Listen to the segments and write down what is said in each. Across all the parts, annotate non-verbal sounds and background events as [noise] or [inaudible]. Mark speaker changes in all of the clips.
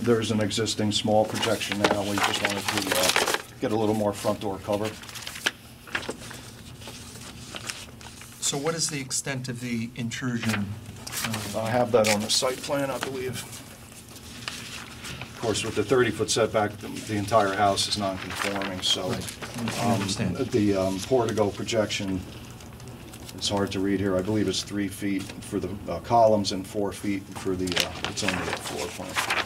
Speaker 1: There's an existing small projection now, we just wanted to uh, get a little more front door cover.
Speaker 2: So what is the extent of the intrusion? uh,
Speaker 1: I have that on the site plan, I believe. Of course, with the 30-foot setback, the- the entire house is non-conforming, so
Speaker 2: Right. I
Speaker 1: um,
Speaker 2: understand.
Speaker 1: the um, portico projection, it's hard to read here, I believe it's three feet for the uh, columns and four feet for the, uh, it's only a floor plan.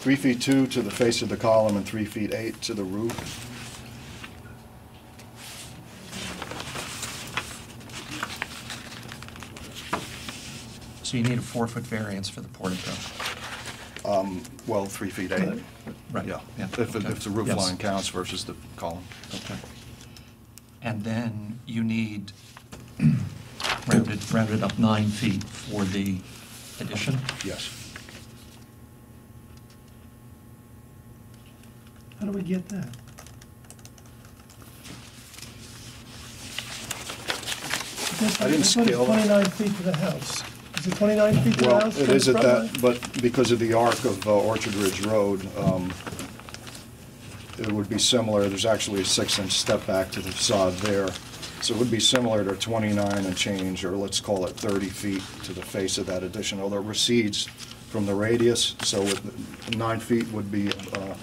Speaker 1: Three feet two to the face of the column and three feet eight to the roof.
Speaker 2: So you need a four-foot variance for the portico.
Speaker 1: Well, three feet eight.
Speaker 2: Right,
Speaker 1: Yeah,
Speaker 2: yeah,
Speaker 1: if,
Speaker 2: okay.
Speaker 1: if the roof
Speaker 2: Yes.
Speaker 1: line counts versus the column.
Speaker 2: Okay. And then you need [clears throat] rounded, rounded up nine feet for the addition?
Speaker 1: Yes.
Speaker 3: How do we get that? That's-
Speaker 1: I didn't
Speaker 3: that's what it's
Speaker 1: scale it.
Speaker 3: 29 feet to the house. Is it 29 feet to the
Speaker 1: Well,
Speaker 3: house?
Speaker 1: it
Speaker 3: from
Speaker 1: is
Speaker 3: the
Speaker 1: at
Speaker 3: front
Speaker 1: that, but because of the arc of uh, Orchard Ridge Road, um, it would be similar, there's actually a six-inch step back to the facade there. So it would be similar to 29 and change, or let's call it 30 feet to the face of that addition, although it recedes from the radius, so with- nine feet would be uh,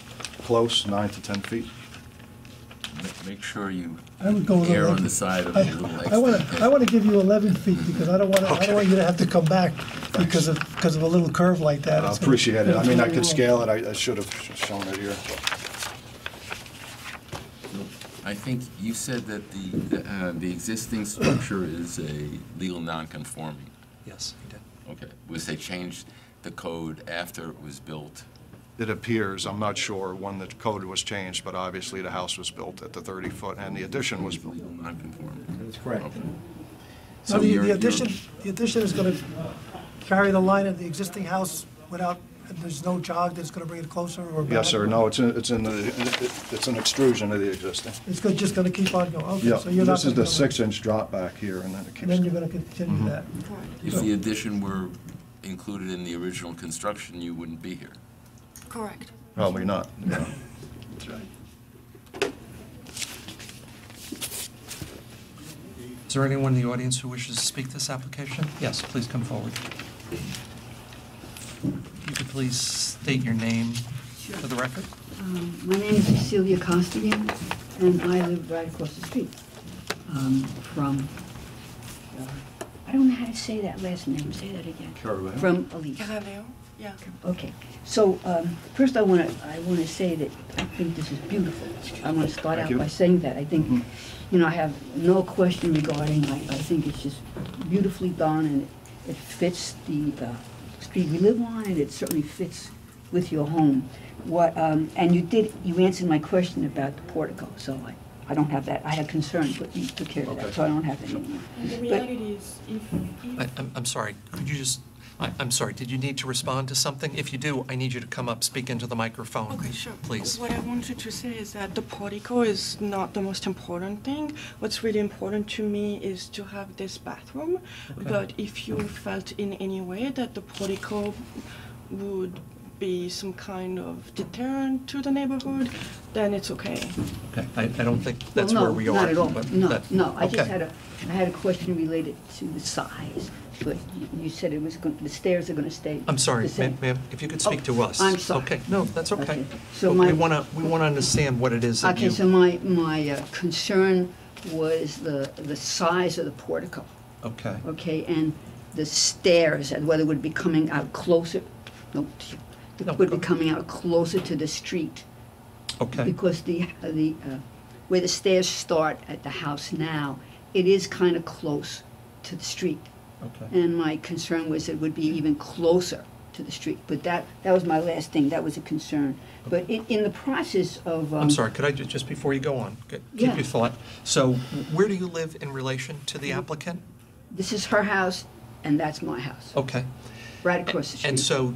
Speaker 1: close, nine to 10 feet.
Speaker 4: Ma- Make sure you
Speaker 3: I would go with
Speaker 4: err on
Speaker 3: 11.
Speaker 4: the side of a
Speaker 3: line?
Speaker 4: little
Speaker 3: I want
Speaker 4: extra.
Speaker 3: to, I want to give you 11 feet because I don't want to, I don't want you to have to come back because of, because of a little curve like that.
Speaker 1: I
Speaker 3: It's gonna-
Speaker 1: appreciate it, I mean, I could
Speaker 3: it's gonna be
Speaker 1: scale it, I I should have shown it here.
Speaker 4: I think you said that the, the, uh, the existing structure is a legal non-conforming.
Speaker 2: Yes, you did.
Speaker 4: Okay, was they changed the code after it was built?
Speaker 1: It appears, I'm not sure when the code was changed, but obviously the house was built at the 30-foot, and the addition was
Speaker 4: It's legal non-conforming.
Speaker 5: That's correct.
Speaker 4: Okay.
Speaker 3: long.
Speaker 4: So
Speaker 3: No, the-
Speaker 4: you're-
Speaker 3: the
Speaker 4: you're-
Speaker 3: addition, the addition is going to carry the line of the existing house without, there's no jog that's going to bring it closer or back?
Speaker 1: Yes, sir, no, it's, in- it's in the, it's an extrusion of the existing.
Speaker 3: It's go- just going to keep on going? Okay,
Speaker 1: Yeah,
Speaker 3: so you're not
Speaker 1: this is
Speaker 3: gonna
Speaker 1: the
Speaker 3: go-
Speaker 1: six-inch drop back here, and then it
Speaker 3: And then you're
Speaker 1: keeps,
Speaker 3: going to continue that?
Speaker 4: If the addition were included in the original construction, you wouldn't be here.
Speaker 6: Correct.
Speaker 1: probably
Speaker 3: [laughs]
Speaker 1: not. no.
Speaker 3: That's right.
Speaker 2: Is there anyone in the audience who wishes to speak to this application? Yes, please come forward. If you could please state your name for the record?
Speaker 7: Um, My name is Cecilia Costigan, and I live right across the street um, from, uh, I don't know how to say that last name, say that again.
Speaker 1: Carabao?
Speaker 7: From Elise.
Speaker 6: Carabeo? Yeah.
Speaker 7: Okay, so um, first I want to, I want to say that I think this is beautiful. I want to start
Speaker 1: Thank
Speaker 7: out
Speaker 1: you. Mm-hmm.
Speaker 7: by saying that. I think, you know, I have no question regarding, I, I think it's just beautifully done and it fits the uh, street we live on and it certainly fits with your home. What, um, and you did, you answered my question about the portico, so I, I don't have that. I had concerns, but you took care of
Speaker 1: Okay.
Speaker 7: that, so I don't have it anymore.
Speaker 6: And the
Speaker 7: But-
Speaker 6: reality is, if,
Speaker 2: I-
Speaker 6: if
Speaker 2: I'm I'm sorry, could you just, I- I'm sorry, did you need to respond to something? If you do, I need you to come up, speak into the microphone.
Speaker 6: Okay, sure.
Speaker 2: Please.
Speaker 6: What I wanted to say is that the portico is not the most important thing. What's really important to me is to have this bathroom. But if you felt in any way that the portico would be some kind of deterrent to the neighborhood, then it's okay.
Speaker 2: Okay, I I don't think that's
Speaker 7: Well,
Speaker 2: where
Speaker 7: no,
Speaker 2: we are.
Speaker 7: Not at all,
Speaker 2: but
Speaker 7: no,
Speaker 2: that-
Speaker 7: no, I just
Speaker 2: okay.
Speaker 7: had a, I had a question related to the size, but you- you said it was, gon- the stairs are gonna stay.
Speaker 2: I'm sorry,
Speaker 7: the same.
Speaker 2: ma- ma'am, if you could speak
Speaker 7: Oh,
Speaker 2: to us.
Speaker 7: I'm sorry.
Speaker 2: Okay, no, that's okay.
Speaker 7: Okay, so
Speaker 2: But
Speaker 7: my-
Speaker 2: We want to, we want to understand what it is that
Speaker 7: Okay,
Speaker 2: you...
Speaker 7: so my, my uh, concern was the, the size of the portico,
Speaker 2: Okay,
Speaker 7: okay, and the stairs, and whether it would be coming out closer, no, t-
Speaker 2: No,
Speaker 7: would be
Speaker 2: go-
Speaker 7: coming out closer to the street.
Speaker 2: okay,
Speaker 7: because the, the, uh, where the stairs start at the house now, it is kind of close to the street.
Speaker 2: okay.
Speaker 7: And my concern was it would be even closer to the street, but that, that was my last thing, that was a concern. But in, in the process of. um,
Speaker 2: I'm sorry, could I, ju- just before you go on, c- keep
Speaker 7: Yeah.
Speaker 2: your thought. So where do you live in relation to the applicant?
Speaker 7: This is her house, and that's my house,
Speaker 2: Okay.
Speaker 7: right across the street.
Speaker 2: Oh, And so